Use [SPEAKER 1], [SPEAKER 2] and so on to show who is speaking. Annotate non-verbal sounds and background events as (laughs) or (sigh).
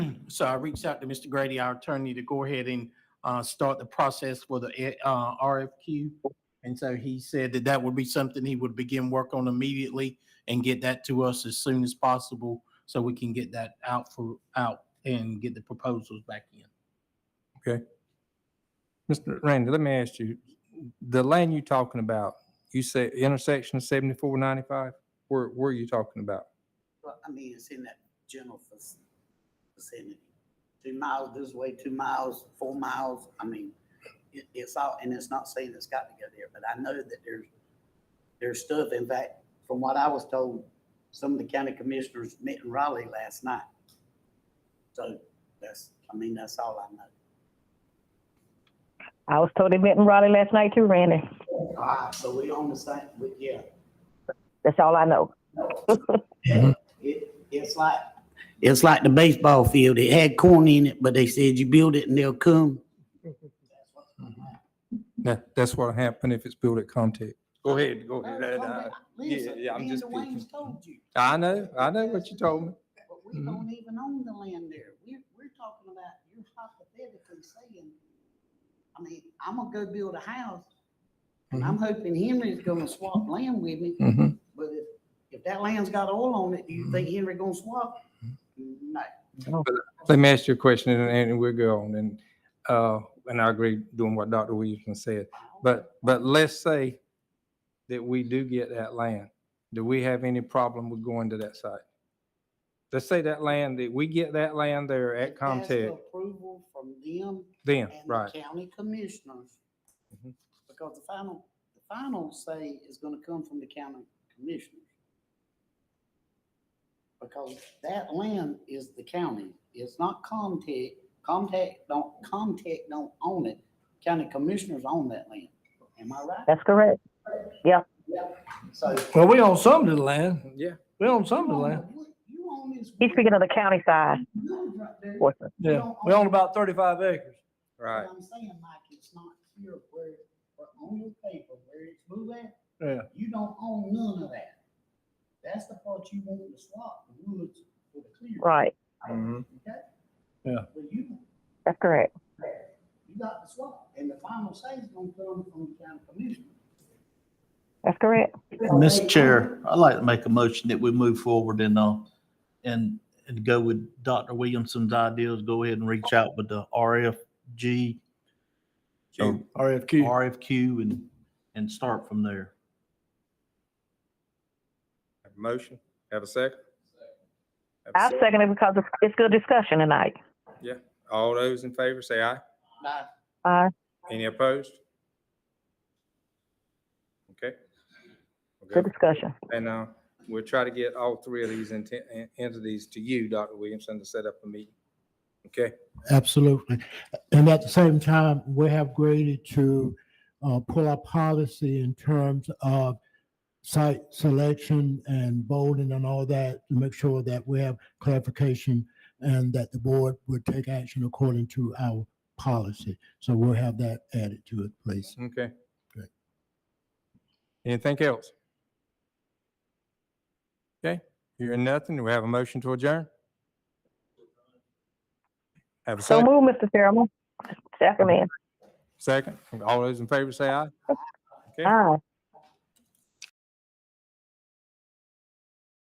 [SPEAKER 1] (clears throat) So I reached out to Mr. Grady, our attorney, to go ahead and uh, start the process for the uh, RFQ. And so he said that that would be something he would begin work on immediately and get that to us as soon as possible so we can get that out for, out and get the proposals back in.
[SPEAKER 2] Mr. Randy, let me ask you, the lane you talking about, you say intersection of seventy-four ninety-five? Where, where are you talking about?
[SPEAKER 3] Well, I mean, it's in that general vic- vicinity. Two miles this way, two miles, four miles, I mean, it, it's all, and it's not saying it's got to go there, but I know that there's, there's stuff, in fact, from what I was told, some of the county commissioners met in Raleigh last night. So that's, I mean, that's all I know.
[SPEAKER 4] I was told they met in Raleigh last night too, Randy.
[SPEAKER 3] All right, so we on the same, we, (laughs) yeah,
[SPEAKER 4] That's all I know.
[SPEAKER 3] It, it's like. It's like the baseball field. It had corn in it, but they said you build it and they'll come.
[SPEAKER 2] That, that's what'll happen if it's built at Comtech. Go ahead, go
[SPEAKER 3] No,
[SPEAKER 2] ahead.
[SPEAKER 3] it's
[SPEAKER 2] I-
[SPEAKER 3] okay.
[SPEAKER 2] I-
[SPEAKER 3] Listen,
[SPEAKER 2] Oh, uh, yeah, I'm
[SPEAKER 3] me
[SPEAKER 2] just
[SPEAKER 3] and Dwayne's
[SPEAKER 2] speaking.
[SPEAKER 3] told you,
[SPEAKER 2] I know, I know what you told me.
[SPEAKER 3] but we
[SPEAKER 2] Mhm.
[SPEAKER 3] don't even own the land there. We're, we're talking about, you're hypothetically saying, I mean, I'm gonna go build a house, and
[SPEAKER 2] Mm-hmm.
[SPEAKER 3] I'm hoping Henry's gonna swap land with me,
[SPEAKER 2] Mhm.
[SPEAKER 3] but if, if that land's got oil on it, do you
[SPEAKER 2] Mm-hmm.
[SPEAKER 3] think Henry gonna swap? No.
[SPEAKER 2] Let me ask you a question and, and we'll go on and, uh, and I agree doing what Dr. Williamson said. But, but let's say that we do get that land. Do we have any problem with going to that site? Let's say that land, that we get that land there at
[SPEAKER 3] It has the
[SPEAKER 2] Comtech,
[SPEAKER 3] Approval from them
[SPEAKER 2] then,
[SPEAKER 3] and the
[SPEAKER 2] right?
[SPEAKER 3] county commissioners.
[SPEAKER 2] Mhm.
[SPEAKER 3] Because the final, the final say is gonna come from the county commissioners. Because that land is the county, it's not Comtech, Comtech don't, Comtech don't own it, county commissioners own that land, am I right?
[SPEAKER 4] That's correct.
[SPEAKER 3] So.
[SPEAKER 5] Well, we own some of the land.
[SPEAKER 2] Yeah.
[SPEAKER 5] We own
[SPEAKER 3] you
[SPEAKER 5] some of the
[SPEAKER 3] own
[SPEAKER 5] land.
[SPEAKER 3] the wood- You own this.
[SPEAKER 4] He's
[SPEAKER 3] wood
[SPEAKER 4] speaking of the county side
[SPEAKER 3] village right there.
[SPEAKER 4] portion.
[SPEAKER 5] Yeah, we own about thirty-five acres.
[SPEAKER 2] Right.
[SPEAKER 3] What I'm saying, Mike, it's not here where, where on your paper, where it's moved at,
[SPEAKER 5] Yeah.
[SPEAKER 3] You don't own none of that. That's the part you want to swap, the woods for the clear.
[SPEAKER 4] Right.
[SPEAKER 2] Mhm.
[SPEAKER 3] Okay?
[SPEAKER 5] Mm-hmm. Yeah.
[SPEAKER 3] But you,
[SPEAKER 4] That's correct.
[SPEAKER 3] you got the swap, and the final say is gonna come from the county commission.
[SPEAKER 4] That's correct.
[SPEAKER 6] Mr. Chair, I'd like to make a motion that we move forward and, uh, and, and go with Dr. Williamson's ideas, go ahead and reach out with the RFG, or
[SPEAKER 5] RFQ.
[SPEAKER 6] RFQ and, and start from there.
[SPEAKER 2] Have a Motion, have a second? Have a
[SPEAKER 4] I second it because it's- it's good discussion tonight.
[SPEAKER 2] All those in favor say aye.
[SPEAKER 3] Now,
[SPEAKER 4] Uh,
[SPEAKER 2] Any opposed? Okay.
[SPEAKER 4] good
[SPEAKER 2] Okay.
[SPEAKER 4] discussion.
[SPEAKER 2] And uh, we'll try to get all three of these enti- en- entities to you, Dr. Williamson, to set up a meeting. Okay?
[SPEAKER 7] Absolutely. And at the same time, we have graded to uh, pull our policy in terms of site selection and bolding and all that to make sure that we have clarification and that the board would take action according to our policy. So we'll have that added to it, please.
[SPEAKER 2] Okay.
[SPEAKER 7] Great.
[SPEAKER 2] Anything else? Okay, hearing nothing, do we have a motion to adjourn? Have a
[SPEAKER 4] So
[SPEAKER 2] second,
[SPEAKER 4] move, Mr. Chairman. Second man.
[SPEAKER 2] second. All those in favor say aye.
[SPEAKER 4] Aye.